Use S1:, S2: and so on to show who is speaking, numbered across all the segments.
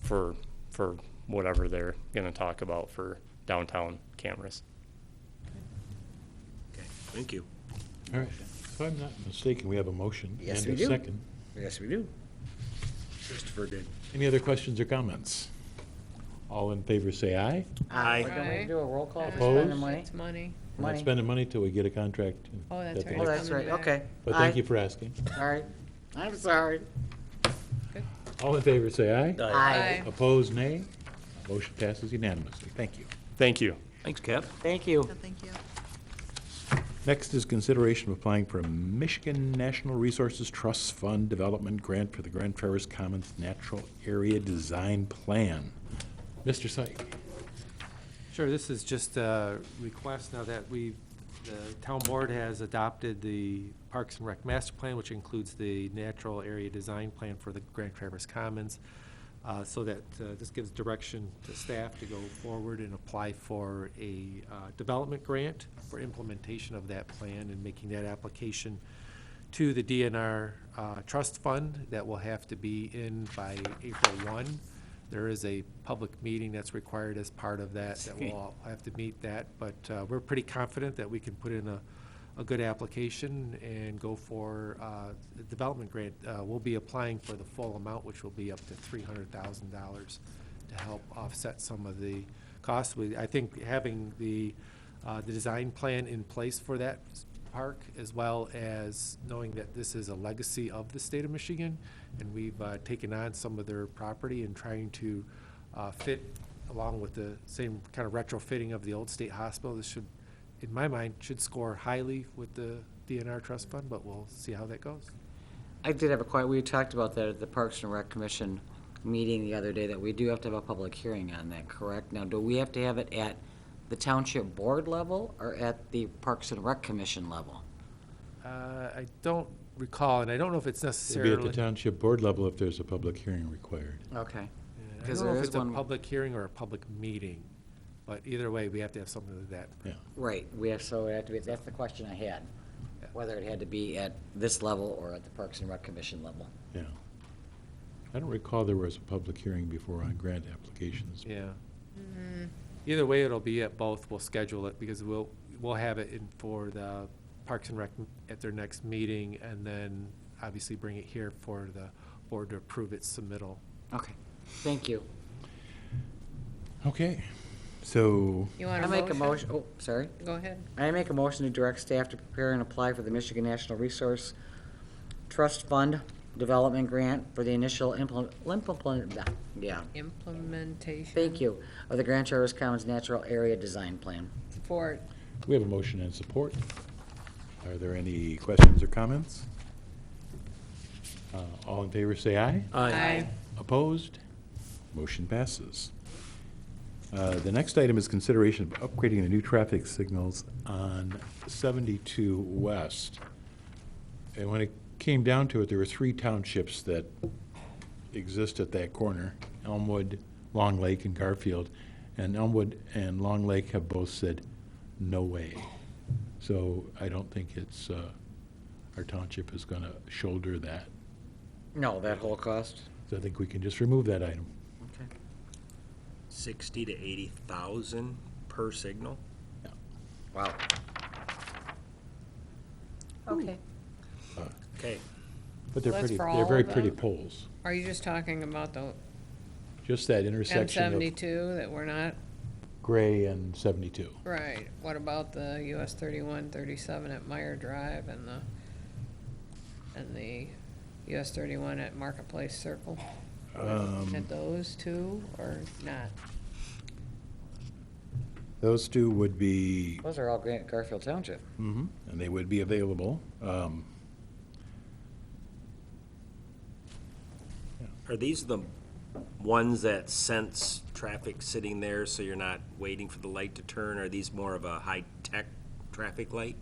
S1: for, for whatever they're gonna talk about for downtown cameras.
S2: Okay, thank you.
S3: All right. If I'm not mistaken, we have a motion.
S2: Yes,
S3: and
S2: we
S3: a
S2: do.
S3: second.
S2: Yes, we do. Christopher did.
S3: Any other questions or comments? All in favor, say aye.
S4: We're
S2: Aye.
S4: going
S5: Aye.
S4: to do a roll call for
S3: Opposed?
S4: spending money?
S5: It's money.
S3: We're not
S4: Money.
S3: spending money till we get a contract.
S5: Oh, that's
S3: that they
S5: right.
S4: Oh,
S3: have.
S4: that's right,
S5: Coming back.
S4: okay.
S3: But thank you for asking.
S4: Aye. All right. I'm sorry.
S3: All in favor, say aye.
S4: Aye.
S3: Opposed, nay. Motion passes unanimously. Thank you.
S1: Thank you.
S2: Thanks, Cap.
S4: Thank you.
S5: Thank you.
S3: Next is consideration of applying for a Michigan National Resources Trust Fund Development Grant for the Grand Traverse Commons Natural Area Design Plan. Mr. Syke.
S6: Sure, this is just a request now that we, the town board has adopted the Parks and Rec Master Plan, which includes the natural area design plan for the Grand Traverse Commons, uh, so that uh, this gives direction to staff to go forward and apply for a uh, development grant for implementation of that plan and making that application to the DNR uh, Trust Fund that will have to be in by April 1. There is a public meeting that's required as part of that, that we'll all have to meet that, but uh, we're pretty confident that we can put in a, a good application and go for uh, the development grant. Uh, We'll be applying for the full amount, which will be up to $300,000 to help offset some of the costs. We- I think having the, uh, the design plan in place for that s- park, as well as knowing that this is a legacy of the state of Michigan, and we've uh, taken on some of their property and trying to uh, fit along with the same kind of retrofitting of the old state hospital. This should, in my mind, should score highly with the DNR trust fund, but we'll see how that goes.
S4: I did have a quiet, we talked about that at the Parks and Rec Commission meeting the other day, that we do have to have a public hearing on that, correct? Now, do we have to have it at the Township Board level or at the Parks and Rec Commission level?
S6: Uh, I don't recall, and I don't know if it's
S3: It'll be
S6: necessarily.
S3: at the township board level if there's a public hearing required.
S4: Okay.
S6: Yeah, I
S4: Because
S6: don't know
S4: there
S6: if
S4: is
S6: it's a
S4: one-
S6: public hearing or a public meeting, but either way, we have to have something to that.
S3: Yeah.
S4: Right, we have, so it had to be, that's the question I had, whether it had to be at this level or at the Parks and Rec Commission level.
S3: Yeah. I don't recall there was a public hearing before on grant applications.
S6: Yeah.
S4: Mm-hmm.
S6: Either way, it'll be at both. We'll schedule it because we'll, we'll have it in for the Parks and Rec at their next meeting and then obviously bring it here for the board to approve its submittal.
S4: Okay, thank you.
S3: Okay, so,
S5: You want
S4: I
S5: a
S4: make
S5: motion?
S4: a motion, oh, sorry.
S5: Go ahead.
S4: I make a motion to direct staff to prepare and apply for the Michigan National Resource Trust Fund Development Grant for the initial implement, yeah,
S5: Implementation.
S4: thank you, of the Grand Traverse Commons Natural Area Design Plan.
S5: Support.
S3: we have a motion and support. Are there any questions or comments? Uh, All in favor, say aye.
S5: Aye.
S3: Opposed? Motion passes. Uh, The next item is consideration of upgrading the new traffic signals on 72 West. And when it came down to it, there were three townships that exist at that corner, Elmwood, Long Lake, and Garfield. And Elmwood and Long Lake have both said, "No way." So I don't think it's, uh, our township is going to shoulder that.
S4: No, that whole cost?
S3: So I think we can just remove that item.
S4: Okay.
S2: Sixty to eighty thousand per signal?
S4: Wow. Okay.
S2: Okay,
S3: But they're
S5: Well, that's
S3: pretty,
S5: for
S3: they're
S5: all
S3: very
S5: of
S3: pretty
S5: them?
S3: poles.
S5: Are you just talking about the
S3: Just that
S5: M
S3: intersection of
S5: seventy-two that we're not,
S3: gray and 72.
S5: right? What about the US thirty-one, thirty-seven at Meyer Drive and the, and the US thirty-one at Marketplace Circle? At those two or not?
S3: Those two would be,
S4: Those are all Grant Garfield Township.
S3: and they would be available. Um,
S2: are these the ones that sense traffic sitting there, so you're not waiting for the light to turn? Are these more of a high-tech traffic light?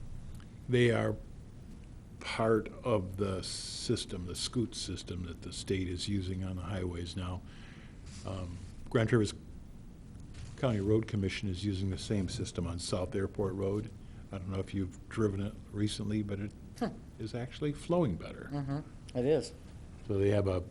S3: They are part of the system, the scoot system that the state is using on the highways now. Um, Grand Traverse County Road Commission is using the same system on South Airport Road. I don't know if you've driven it
S5: Mm-hmm.
S3: recently, but it is actually flowing better.
S4: It is.
S3: So they have a